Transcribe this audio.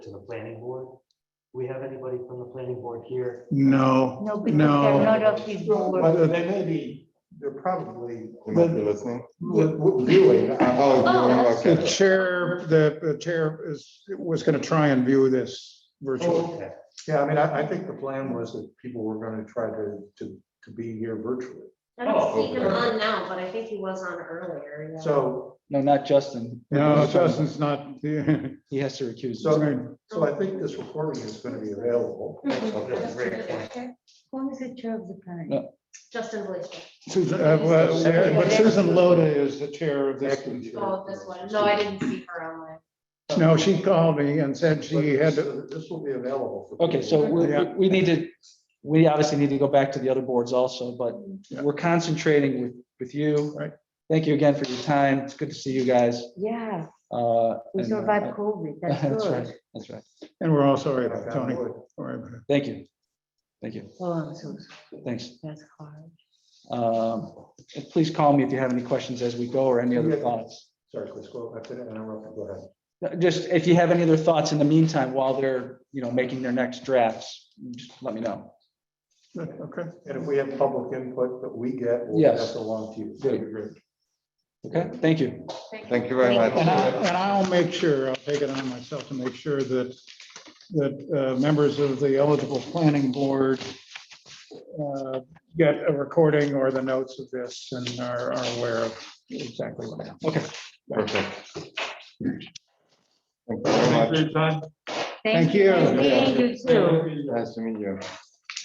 to the planning board. Do we have anybody from the planning board here? No, No, because they're no. not of the board. Well, they may be, they're probably You might be listening. w- w- viewing. Oh, The okay. chair, the the chair is, was going to try and view this virtually. Okay, Yeah, I mean, I, I think the plan was that people were gonna try to, to, to be here virtually. I don't Oh, see him okay. on now, but I think he was on earlier. yeah. So, No, not Justin. No, Justin's not, He has to recuse. so, so I think this recording is gonna be available. that's a great point. Who is the chair of the planning? No. Justin Blaisdell. Susan, uh, well, yeah, but Susan Loda is the chair of this. Oh, this one. No, I didn't see her online. No, she called me and said she had, to- But This will be available. for Okay, so people. we, we- Yeah. we need to, we obviously need to go back to the other boards also, but we're concentrating with, with you. Right. Thank you again for your time. It's good to see you guys. Yeah, Uh, we and, uh, survived COVID, that's That's right, good. that's right. and we're all sorry about Tony. Okay. Sorry about it. Thank you. Thank you. Oh, I'm so, sorry. Thanks. that's hard. Um, and Please call me if you have any questions as we go or any other Yeah. thoughts. Sorry, Chris, go, I didn't interrupt, go ahead. No, Just if you have any other thoughts in the meantime, while they're, you know, making their next drafts, just let me know. Okay, And if we have public input that we get, we'll Yes. pass along to you. Good. Okay, thank you. Thank you very much. and I, and I'll make sure, I'll take it on myself to make sure that, that uh, members of the eligible planning board uh, get a recording or the notes of this and are are aware of exactly what happened. Okay. Perfect. Thank you very much. Thank you. Thank you too. Nice to meet you.